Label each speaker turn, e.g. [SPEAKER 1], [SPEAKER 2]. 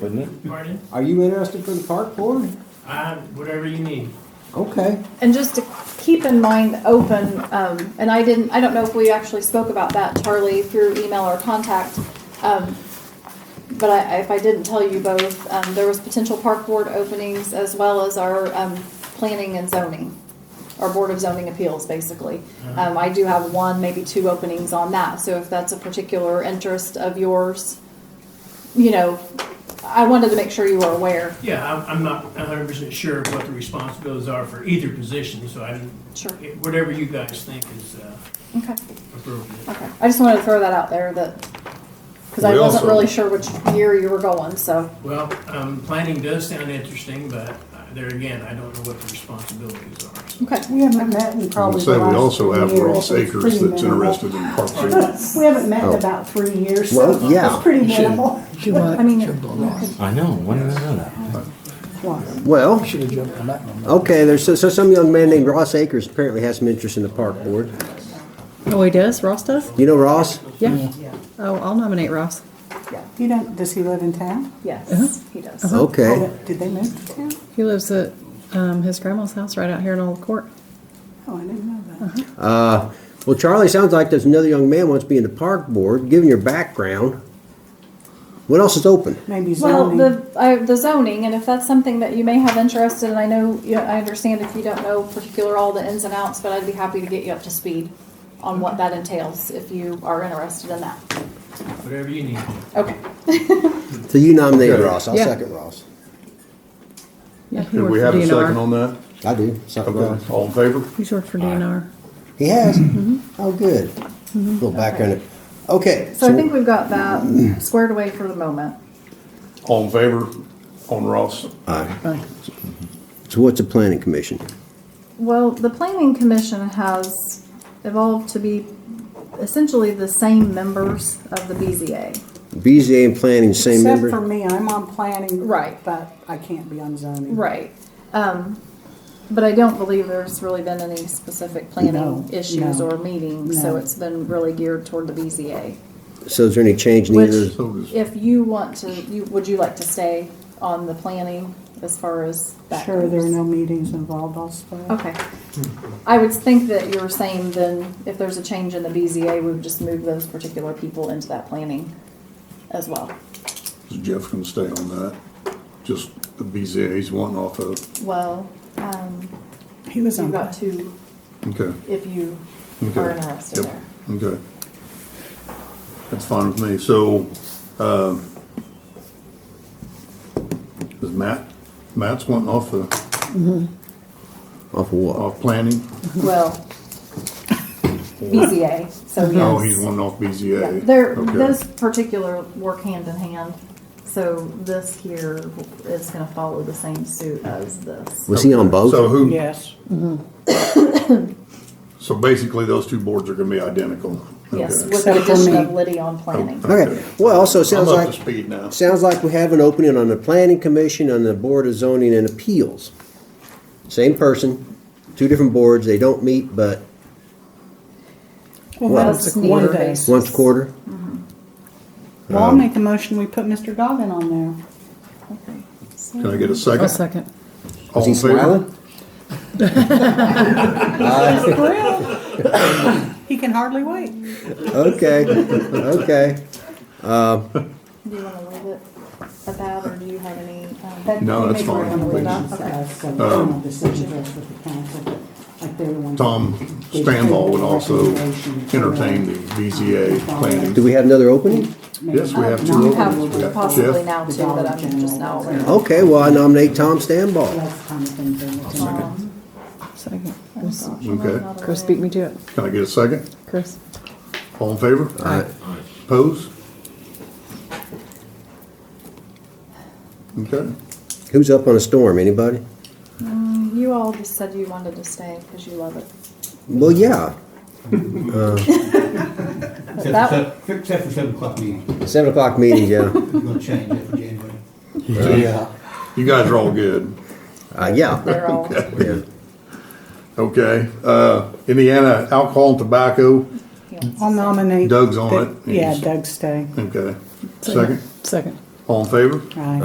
[SPEAKER 1] wouldn't it?
[SPEAKER 2] Pardon?
[SPEAKER 1] Are you interested for the park board?
[SPEAKER 2] Uh, whatever you need.
[SPEAKER 1] Okay.
[SPEAKER 3] And just to keep in mind open, um, and I didn't, I don't know if we actually spoke about that, Charlie, through email or contact. Um, but I, if I didn't tell you both, um, there was potential park board openings as well as our, um, planning and zoning. Our Board of Zoning Appeals, basically. Um, I do have one, maybe two openings on that, so if that's a particular interest of yours, you know, I wanted to make sure you were aware.
[SPEAKER 2] Yeah, I'm, I'm not hundred percent sure of what the responsibilities are for either position, so I,
[SPEAKER 3] Sure.
[SPEAKER 2] whatever you guys think is uh,
[SPEAKER 3] Okay.
[SPEAKER 2] appropriate.
[SPEAKER 3] Okay, I just wanted to throw that out there that, because I
[SPEAKER 4] We
[SPEAKER 3] wasn't
[SPEAKER 4] also-
[SPEAKER 3] really sure which year you were going, so,
[SPEAKER 2] Well, um, planning does sound interesting, but uh, there again, I don't know what the responsibilities are. so.
[SPEAKER 3] okay.
[SPEAKER 5] We haven't met in
[SPEAKER 4] I would
[SPEAKER 5] probably
[SPEAKER 4] say
[SPEAKER 5] the
[SPEAKER 4] we
[SPEAKER 5] last
[SPEAKER 4] also
[SPEAKER 5] three
[SPEAKER 4] have
[SPEAKER 5] years,
[SPEAKER 4] Ross
[SPEAKER 5] so it's pretty
[SPEAKER 4] Acres that's
[SPEAKER 5] minimal.
[SPEAKER 4] interested in Park City.
[SPEAKER 5] We haven't met in about three years, so
[SPEAKER 1] Oh. Well, yeah,
[SPEAKER 5] it's pretty
[SPEAKER 1] you should-
[SPEAKER 5] minimal.
[SPEAKER 6] Should I,
[SPEAKER 3] I mean,
[SPEAKER 6] jumped on that.
[SPEAKER 7] I know. Why did I know that?
[SPEAKER 1] Well,
[SPEAKER 6] Should have jumped on that one.
[SPEAKER 1] okay, there's, so so some young man named Ross Akers apparently has some interest in the park board.
[SPEAKER 8] Oh, he does? Ross does?
[SPEAKER 1] You know Ross?
[SPEAKER 8] Yeah. Oh, I'll nominate Ross.
[SPEAKER 5] You don't, does he live in town?
[SPEAKER 3] Yes, he does.
[SPEAKER 1] Okay.
[SPEAKER 5] Oh, Did they move to town?
[SPEAKER 8] He lives at um, his grandma's house right out here in Old Court.
[SPEAKER 5] Oh, I didn't know that.
[SPEAKER 1] Uh-huh. Well, Charlie, sounds like there's another young man wants to be in the park board, given your background. What else is open?
[SPEAKER 5] Maybe
[SPEAKER 3] Well,
[SPEAKER 5] zoning.
[SPEAKER 3] the, I, the zoning, and if that's something that you may have interest in, and I know, you I understand if you don't know particular all the ins and outs, but I'd be happy to get you up to speed on what that entails, if you are interested in that.
[SPEAKER 2] Whatever you need.
[SPEAKER 3] Okay,
[SPEAKER 1] So you nominated
[SPEAKER 4] Okay.
[SPEAKER 1] Ross, I'll
[SPEAKER 8] Yeah.
[SPEAKER 1] second Ross.
[SPEAKER 8] Yeah, he
[SPEAKER 4] Did
[SPEAKER 8] worked
[SPEAKER 4] we
[SPEAKER 8] for
[SPEAKER 4] have a second
[SPEAKER 8] DNR.
[SPEAKER 4] on that?
[SPEAKER 1] I do, second Ross.
[SPEAKER 4] Okay, all in favor?
[SPEAKER 8] He's worked for DNR.
[SPEAKER 1] He has? Oh, good. Little background. Okay.
[SPEAKER 3] so I think we've got that squared away for the moment.
[SPEAKER 4] All in favor on Ross?
[SPEAKER 1] So what's a planning commission?
[SPEAKER 3] Well, the planning commission has evolved to be essentially the same members of the BZA.
[SPEAKER 1] BZA and planning, same
[SPEAKER 5] Except for
[SPEAKER 1] member?
[SPEAKER 5] me, I'm on planning.
[SPEAKER 3] Right.
[SPEAKER 5] But I can't be on zoning.
[SPEAKER 3] Right. Um, but I don't believe there's really been any specific
[SPEAKER 5] No,
[SPEAKER 3] planning issues
[SPEAKER 5] no,
[SPEAKER 3] or meetings,
[SPEAKER 5] no.
[SPEAKER 3] so it's been really geared toward the BZA.
[SPEAKER 1] So is there any change needed?
[SPEAKER 3] Which,
[SPEAKER 4] So does-
[SPEAKER 3] if you want to, you, would you like to stay on the planning as far as that
[SPEAKER 5] Sure, there are
[SPEAKER 3] goes?
[SPEAKER 5] no meetings involved, I'll stay.
[SPEAKER 3] Okay. I would think that you're saying then, if there's a change in the BZA, we would just move those particular people into that planning as well.
[SPEAKER 4] Is Jeff gonna stay on that? Just the BZA's one off of,
[SPEAKER 3] Well, um,
[SPEAKER 5] He was
[SPEAKER 3] you've
[SPEAKER 5] on,
[SPEAKER 3] got two,
[SPEAKER 4] okay,
[SPEAKER 3] if you
[SPEAKER 4] okay.
[SPEAKER 3] are interested
[SPEAKER 4] Yep,
[SPEAKER 3] there.
[SPEAKER 4] Okay. That's fine with me. So, um, is Matt, Matt's one off the,
[SPEAKER 1] Off of what?
[SPEAKER 4] off planning?
[SPEAKER 3] Well, BZA, so yes.
[SPEAKER 4] No, Oh, he's one off
[SPEAKER 3] Yeah,
[SPEAKER 4] BZA.
[SPEAKER 3] They're,
[SPEAKER 4] Okay.
[SPEAKER 3] those particular work hand in hand, so this here is gonna follow the same suit as this.
[SPEAKER 1] Was he on
[SPEAKER 4] So
[SPEAKER 1] both?
[SPEAKER 4] who,
[SPEAKER 5] yes.
[SPEAKER 4] so basically those two boards are gonna be identical?
[SPEAKER 3] Yes,
[SPEAKER 4] Okay.
[SPEAKER 3] with the
[SPEAKER 5] Except for
[SPEAKER 3] addition
[SPEAKER 5] me.
[SPEAKER 3] of Liddy on planning.
[SPEAKER 1] Okay, well, so it sounds
[SPEAKER 4] I'm up to
[SPEAKER 1] like,
[SPEAKER 4] speed now.
[SPEAKER 1] sounds like we have an opening on the planning commission, on the board of zoning and appeals. Same person, two different boards, they don't meet but
[SPEAKER 9] Well,
[SPEAKER 1] Well, um,
[SPEAKER 9] that's
[SPEAKER 3] it's
[SPEAKER 9] one
[SPEAKER 3] needed
[SPEAKER 9] day.
[SPEAKER 3] based.
[SPEAKER 1] once a quarter.
[SPEAKER 9] Well, I'll make a motion, we put Mr. Dobbin on there.
[SPEAKER 4] Can I get a
[SPEAKER 8] I'll
[SPEAKER 4] second?
[SPEAKER 8] second.
[SPEAKER 4] All
[SPEAKER 1] Is he
[SPEAKER 4] in favor?
[SPEAKER 1] smiling?
[SPEAKER 9] Well, He can hardly wait.
[SPEAKER 1] Okay, okay.
[SPEAKER 3] Do you wanna leave it at that, or do you have any? um,
[SPEAKER 4] No, that's fine. Um,
[SPEAKER 5] fine. Decisions are for the council, but like they're the ones.
[SPEAKER 4] Tom Stanlaw would also entertain the BZA planning.
[SPEAKER 1] Do we have another opening?
[SPEAKER 4] Yes, we have
[SPEAKER 3] You
[SPEAKER 4] two openings.
[SPEAKER 3] Um,
[SPEAKER 4] We
[SPEAKER 3] have
[SPEAKER 4] got
[SPEAKER 3] possibly
[SPEAKER 4] Jeff.
[SPEAKER 3] now too, that I'm just
[SPEAKER 4] Oh,
[SPEAKER 3] now aware of.
[SPEAKER 1] Okay, well, I nominate Tom Stanball.
[SPEAKER 3] Um,
[SPEAKER 8] Second.
[SPEAKER 3] gosh, I'm
[SPEAKER 4] Okay.
[SPEAKER 3] not
[SPEAKER 8] Chris,
[SPEAKER 3] aware.
[SPEAKER 8] beat me to it.
[SPEAKER 4] Can I get a second?
[SPEAKER 8] Chris.
[SPEAKER 4] All in favor?
[SPEAKER 1] Aye.
[SPEAKER 4] Pose? Okay.
[SPEAKER 1] Who's up on a storm, anybody?
[SPEAKER 3] Um, You all just said you wanted to stay, cause you love it.
[SPEAKER 1] Well, yeah,
[SPEAKER 3] That-
[SPEAKER 10] Except for, except for seven o'clock meeting,
[SPEAKER 1] seven o'clock meetings, yeah.
[SPEAKER 10] we're gonna change that for January.
[SPEAKER 4] Yeah. You guys are all good.
[SPEAKER 1] Uh, yeah,
[SPEAKER 3] They're all,
[SPEAKER 4] Okay. Uh, Indiana Alcohol and Tobacco,
[SPEAKER 3] he wants to
[SPEAKER 9] I'll
[SPEAKER 3] stay.
[SPEAKER 9] nominate.
[SPEAKER 4] Doug's on
[SPEAKER 9] that-
[SPEAKER 4] it.
[SPEAKER 9] Yeah, Doug stay.
[SPEAKER 4] okay. Second,
[SPEAKER 8] Second.
[SPEAKER 4] all in favor?
[SPEAKER 9] Aye.